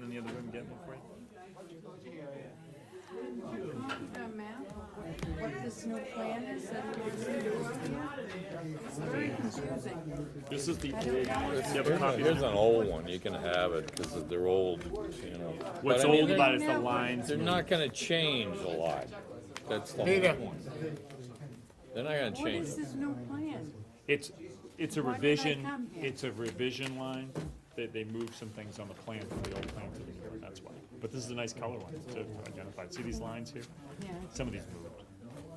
in the other room getting it for you? A map, what this new plan is that goes in Europe. It's very confusing. This is the old, do you have a copy? Here's an old one, you can have it, because they're old, you know. But What's I mean, old they're- about it is the lines. They're not gonna change a lot, that's the Neither. whole point. They're not gonna What change is it. this new plan? It's, it's a Why did I revision, come here? it's a revision line, they, they moved some things on the plan from the old plan to the new one, that's why. But this is a nice color one to identify, see these lines here? Yeah. Some of these moved,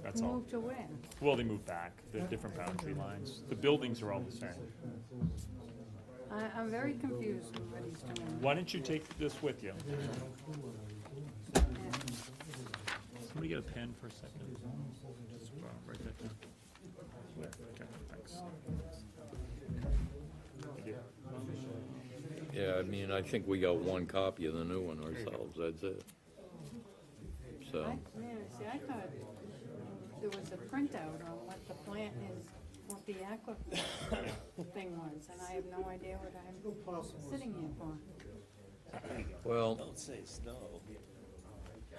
that's all. Move to where? Well, they moved back, they're different boundary lines, the buildings are all the same. I, I'm very confused with what he's doing. Why don't you take this with you? Somebody get a pen for a second? Just uh, write that down. There, okay, thanks. Thank you. Yeah, I mean, I think we got one copy of the new one ourselves, that's it. So, I, man, see, I thought there was a printout on what the plan is, what the aquifer thing was, and I have no idea what I'm sitting here for. well, Don't say snow.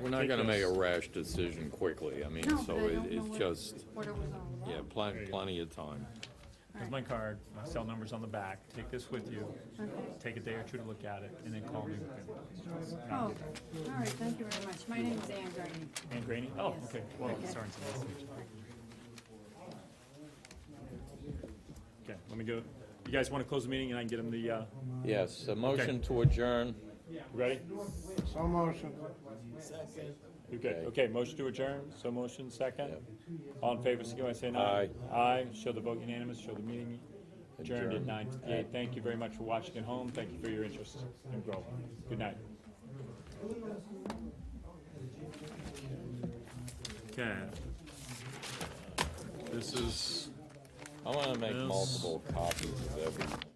we're not gonna make a rash decision quickly, I mean, No, but so I it- don't know it's what- just, What it was all about. yeah, plenty, plenty of time. Here's my card, my cell number's on the back, take this with you, Okay. take a day or two to look at it, and then call me. with it. Oh, all right, thank you very much. My name is Ann Gurney. Ann Graney, oh, Yes. okay, well, Okay. sorry. it's a nice to meet you. Okay, let me go, you guys wanna close the meeting and I can get them the, uh, Yes, a motion to adjourn, ready? So motion. Okay, okay, motion to adjourn, so motion, second. All in favor, signify by saying aye. Aye, show the vote unanimous, show the meeting adjourned at Adjourned. nine fifty-eight. Thank you very much for watching at home, thank you for your interest in Groveland. Good night. Okay. This is. I wanna make Yes. multiple copies of everything.